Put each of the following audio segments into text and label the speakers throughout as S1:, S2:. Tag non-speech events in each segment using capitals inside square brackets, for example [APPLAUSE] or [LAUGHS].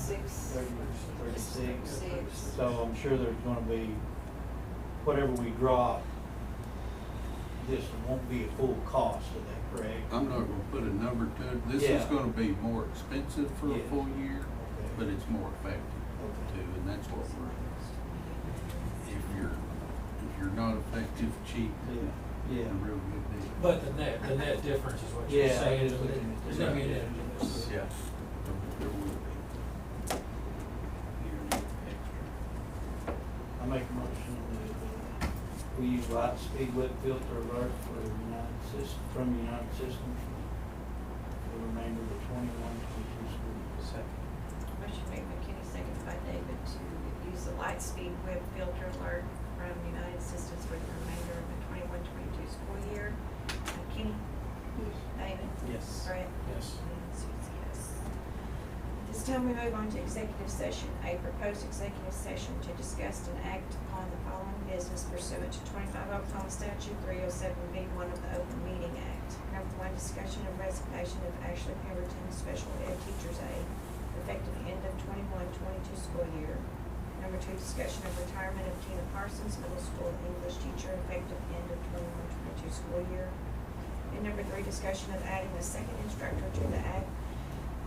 S1: thirty or thirty-six.
S2: Six.
S1: So I'm sure there's gonna be, whatever we drop, this won't be a full cost of that, correct?
S3: I'm not gonna put a number to it. This is
S1: Yeah.
S3: gonna be more expensive for a
S1: Yeah.
S3: full year,
S1: Okay.
S3: but it's more effective
S1: Okay.
S3: too, and that's what we're, if you're, if you're not effective, cheap,
S1: Yeah,
S3: a
S1: yeah.
S3: real good deal.
S4: But the net, the net difference is what you're
S1: Yeah,
S4: saying,
S1: it's
S4: isn't it?
S1: looking at
S4: there's
S1: the
S4: gonna be a
S1: net.
S4: net difference.
S3: Yeah. There will be.
S1: I make a motion that uh, we use light speed wet filter alert for United Systems, from United Systems for the remainder of the twenty-one, twenty-two school year. Second.
S2: Motion made by Kenny, seconded by David to use the Lightspeed web filter alert from United Systems for the remainder of the 21-22 school year. Uh, Kenny? David?
S1: Yes.
S2: Brett?
S4: Yes.
S2: And Susie, yes. At This time we move on to executive session, a proposed executive session to discuss and act upon the following business pursuant to twenty-five Oklahoma statute three oh seven B one of the Open Meeting Act. Number one, discussion of resignation of Ashley Pemberton, special ed teacher's aide, effective end of 21-22 school year. Number two, discussion of retirement of Tina Parsons, middle school English teacher, effective end of 21-22 school year. And number three, discussion of adding a second instructor to the ag,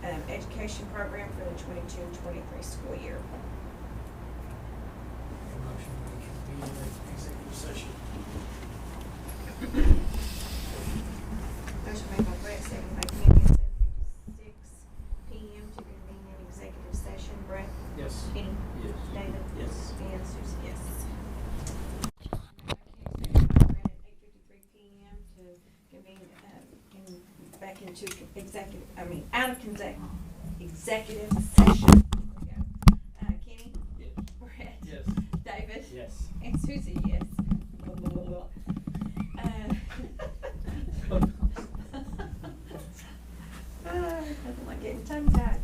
S2: um, education program for the 22-23 school year.
S4: Motion to convene the executive session.
S2: Motion made by Brett, second by Kenny, at seven fifty-six P M to convene an executive session. Brett?
S4: Yes.
S2: Kenny?
S1: Yes.
S2: David?
S4: Yes.
S2: And Susie, yes. Eight fifty-three P M to convene, uh, in, back into executive, I mean, out of exec, executive session. There we go. Uh, Kenny?
S4: Yes.
S2: Brett?
S4: Yes.
S2: David?
S4: Yes.
S2: And Susie, yes. Blah, blah, [LAUGHS] blah, blah. Uh, Ah, Nothing like getting tongue tied.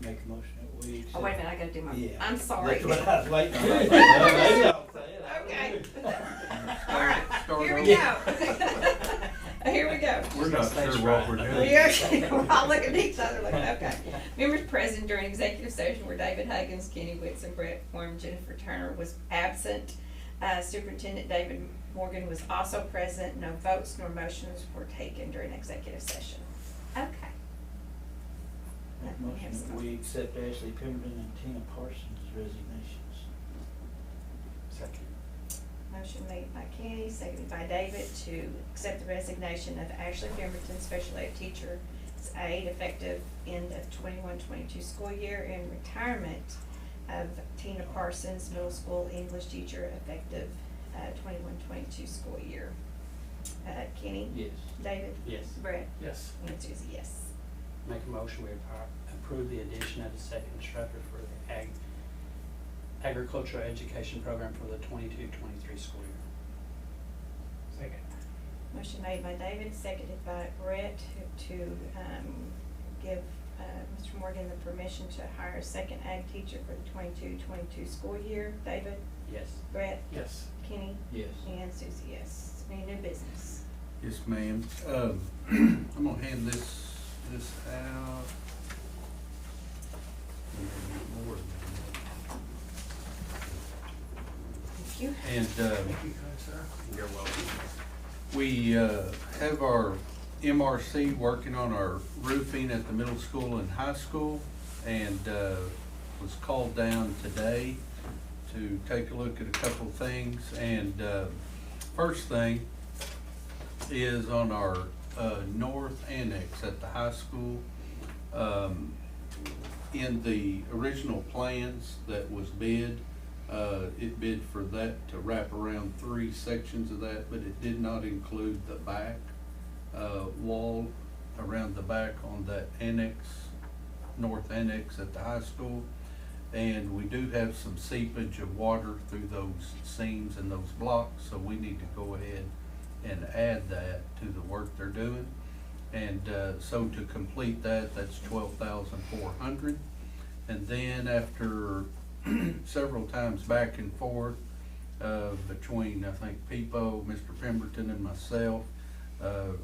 S1: Make a motion that we.
S2: Oh, wait a minute, I gotta do my,
S1: Yeah.
S2: I'm sorry.
S1: That's what I was
S2: [LAUGHS]
S1: waiting on.
S4: Maybe
S1: I'll say it. I don't
S2: Okay.
S1: know.
S2: All right,
S3: Start
S2: here we
S1: over.
S2: go. [LAUGHS] Here we go.
S3: We're not
S4: That's
S3: sure what we're
S4: right.
S3: doing.
S2: We are, we're all looking at each other like, okay. Members present during executive session were David Huggins, Kenny Whitson, Brett Form, Jennifer Turner was absent. Uh, Superintendent David Morgan was also present. No votes nor motions were taken during executive session. Okay.
S1: Make a motion that we accept Ashley Pemberton and Tina Parsons resignations.
S4: Second.
S2: Motion made by Kenny, seconded by David to accept the resignation of Ashley Pemberton, special ed teacher, aide effective end of 21-22 school year and retirement of Tina Parsons, middle school English teacher, effective, uh, 21-22 school year. Uh, Kenny?
S1: Yes.
S2: David?
S5: Yes,
S2: Brett?
S4: Yes.
S2: And Susie, yes.
S5: make a motion, we appro- approve the addition of the second instructor for the ag, agricultural education program for the twenty-two, twenty-three school year.
S4: Second.
S2: Motion made by David, seconded by Brett to um, give uh, Mr. Morgan the permission to hire a second ag teacher for the 22-22 school year. David,
S5: Yes.
S2: Brett,
S4: Yes.
S2: Kenny,
S1: Yes.
S2: and Susie, yes. Any new business?
S3: Yes, ma'am. Um, [CLEARS THROAT] I'm gonna hand this, this out. More than
S2: Thank you.
S3: that. And, um,
S4: Thank you, kind sir.
S3: You're welcome. We uh, have our MRC working on our roofing at the middle school and high school, and uh, was called down today to take a look at a couple things. And uh, first thing is on our uh, north annex at the high school. Um, in the original plans that was bid, uh, it bid for that to wrap around three sections of that, but it did not include the back, uh, wall around the back on that annex, north annex at the high school. And we do have some seepage of water through those seams and those blocks, so we need to go ahead and add that to the work they're doing. And uh, so to complete that, that's twelve thousand four hundred. And then after [CLEARS THROAT] several times back and forth uh, between, I think, Pepo, Mr. Pemberton and myself, uh,